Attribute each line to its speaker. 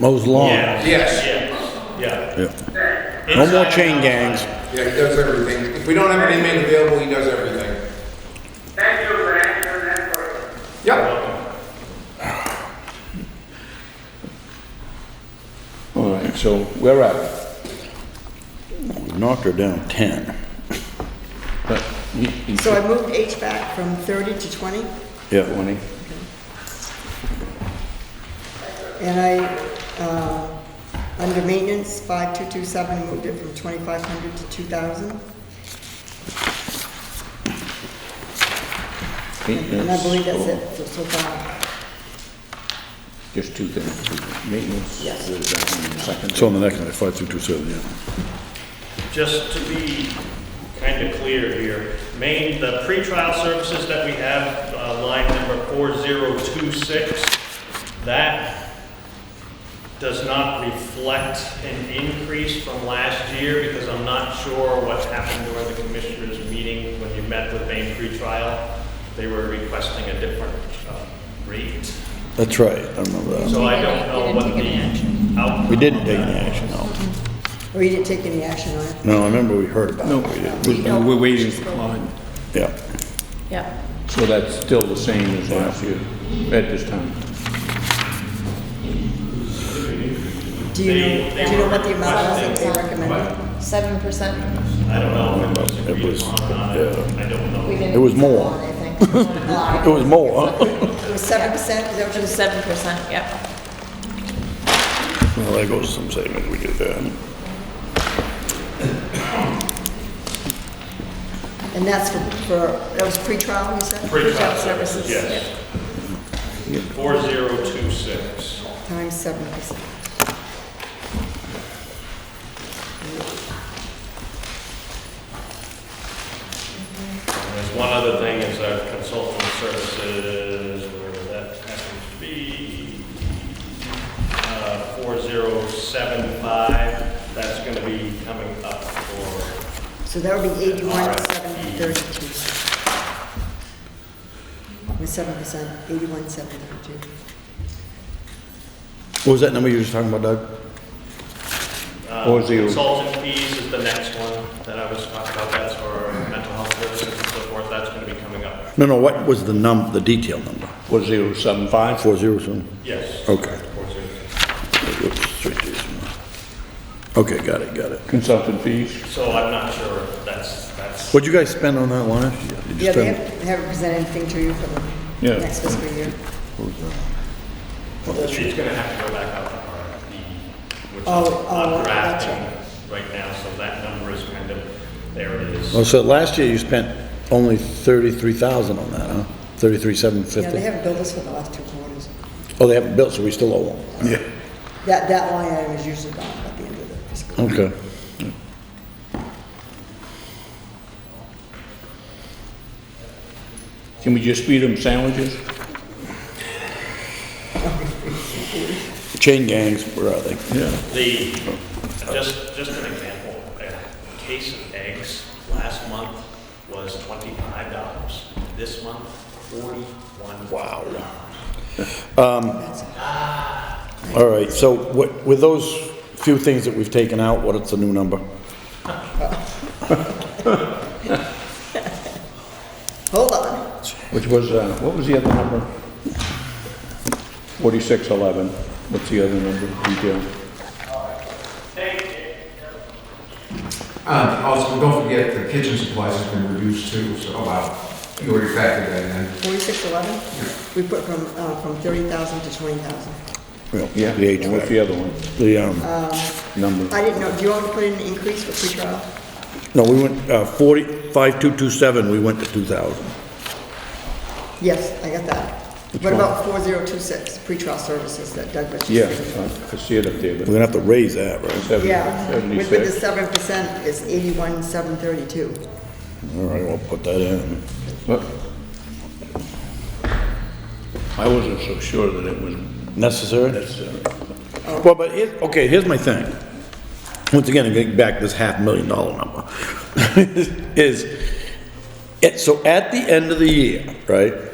Speaker 1: mows lawn.
Speaker 2: Yeah.
Speaker 3: Yes.
Speaker 2: Yeah, yeah.
Speaker 1: Yeah. No more chain gangs.
Speaker 3: Yeah, he does everything. If we don't have any man available, he does everything.
Speaker 4: Thank you for answering that question.
Speaker 3: Yep.
Speaker 5: All right, so where are we?
Speaker 1: We Knocked her down 10.
Speaker 5: But you- you
Speaker 6: So I moved HVAC from 30 to 20,
Speaker 5: said 20.
Speaker 6: and I, uh, under maintenance, 5227, moved it from 2,500 to 2,000. And I
Speaker 5: Maintenance,
Speaker 6: believe that's
Speaker 5: oh,
Speaker 6: it so- so far.
Speaker 5: Just two things, maintenance.
Speaker 6: Yes.
Speaker 5: what is that, in the second
Speaker 7: It's on the next one, five two two seven, yeah.
Speaker 2: Just to be kind of clear here, main, the pretrial services that we have, uh, line number 4026, that does not reflect an increase from last year because I'm not sure what happened during the commissioners' meeting when you met with main pretrial. They were requesting a different uh, rate.
Speaker 1: That's right, I remember that.
Speaker 2: So I
Speaker 8: You
Speaker 2: don't
Speaker 8: didn't-
Speaker 2: know
Speaker 8: you didn't
Speaker 2: what
Speaker 8: take any action.
Speaker 2: the outcome.
Speaker 1: We didn't
Speaker 2: of
Speaker 1: take
Speaker 2: that
Speaker 1: any
Speaker 2: was.
Speaker 1: action, no.
Speaker 6: Or you didn't take any action on it?
Speaker 1: No, I remember we heard about
Speaker 5: No,
Speaker 1: it. We didn't.
Speaker 5: we- no, we're waiting for comment.
Speaker 1: Yeah.
Speaker 8: Yeah.
Speaker 5: So that's still the same as last year at this time?
Speaker 6: Do you
Speaker 2: They-
Speaker 6: know,
Speaker 2: they
Speaker 6: do you know
Speaker 2: were
Speaker 6: what the amount was that
Speaker 2: requesting-
Speaker 6: they recommended?
Speaker 8: Seven percent,
Speaker 2: I don't know if it was
Speaker 1: It
Speaker 2: agreed
Speaker 1: was-
Speaker 2: upon or not, I I don't know.
Speaker 8: we didn't.
Speaker 1: It was more.
Speaker 8: I think.
Speaker 1: It was more, huh?
Speaker 6: It was 7%, is that what
Speaker 8: It
Speaker 6: you
Speaker 8: was seven percent, yep.
Speaker 1: Well, there goes some savings we did there.
Speaker 6: And that's for, for, that was pre-trial, you said?
Speaker 2: Pretrial
Speaker 8: services,
Speaker 2: Yes. Four zero two six.
Speaker 6: Times 7%.
Speaker 2: There's one other thing, is our consulting services, where that happens to be, uh, four zero seven five, that's gonna be coming up for,
Speaker 6: So that would be eighty-one, seven thirty-two. With seven percent, eighty-one, seven thirty-two.
Speaker 1: What was that number you were just talking about, Doug?
Speaker 2: uh,
Speaker 5: Four zero.
Speaker 2: consultant fees is the next one that I was talking about, that's for mental health services and so forth, that's gonna be coming up.
Speaker 1: No, no, what was the num, the detail number?
Speaker 5: 4075?
Speaker 1: Four zero seven?
Speaker 2: Yes.
Speaker 1: Okay.
Speaker 2: Four zero.
Speaker 1: Oops, three two seven. Okay, got it, got it.
Speaker 5: Consultant fees?
Speaker 2: So I'm not sure, if that's, that's,
Speaker 1: What'd you guys spend on that line? Did you
Speaker 6: Yeah, they
Speaker 1: spend-
Speaker 6: haven't they haven't presented anything to you for
Speaker 5: Yeah.
Speaker 6: the next fiscal year.
Speaker 2: it's gonna have to go back out to RFP, which
Speaker 6: Oh,
Speaker 2: I'm
Speaker 6: oh,
Speaker 2: I'm
Speaker 6: okay.
Speaker 2: drafting right now, so that number is kind of, there it is.
Speaker 1: Oh, so last year you spent only thirty-three thousand on that, huh? Thirty-three, seven
Speaker 6: Yeah, they
Speaker 1: fifty?
Speaker 6: haven't billed us for the last two quarters.
Speaker 1: Oh, they haven't built, so we still owe them? Yeah.
Speaker 6: That, that line item is usually gone at the end of the fiscal. year.
Speaker 1: Okay.
Speaker 5: Can we just feed them sandwiches?
Speaker 1: Chain gangs, where are they?
Speaker 5: Yeah.
Speaker 2: The, just, just an example, a case of eggs last month was twenty-five dollars. This month, forty-one. Wow.
Speaker 1: Um, All right, so what, with those few things that we've taken out, what is the new number?
Speaker 6: Hold on,
Speaker 5: Which was, uh, what was the other number? 4611. What's the other number, detail?
Speaker 3: Um, also, don't forget the kitchen supplies have been reduced too, so, oh wow, you already factored that in.
Speaker 6: forty-six eleven, we put from, uh, from thirty thousand to twenty thousand.
Speaker 1: Well,
Speaker 5: Yeah,
Speaker 1: The
Speaker 5: and what's the
Speaker 1: HVAC,
Speaker 5: other one,
Speaker 1: the, um,
Speaker 5: number?
Speaker 6: I didn't know, do you want to put in an increase for pre-trial?
Speaker 1: no, we went, uh, forty, five-two-two-seven, we went to two thousand.
Speaker 6: Yes, I got that. What
Speaker 5: one?
Speaker 6: about four zero two six, pre-trial services that Doug was just
Speaker 5: Yeah, uh,
Speaker 6: saying?
Speaker 5: I- I see it up there,
Speaker 1: We're
Speaker 5: but
Speaker 1: gonna have to raise that, right?
Speaker 5: seven-
Speaker 6: Yeah, with with the
Speaker 5: 76.
Speaker 6: seven percent is eighty-one, seven thirty-two.
Speaker 1: All right, we'll put that in.
Speaker 5: What? I wasn't so sure that it was uh,
Speaker 1: Necessary?
Speaker 5: necessary.
Speaker 1: Well, but it, okay, here's my thing. Once again, I'm getting back to this half million dollar number. Is, it, so at the end of the year, right?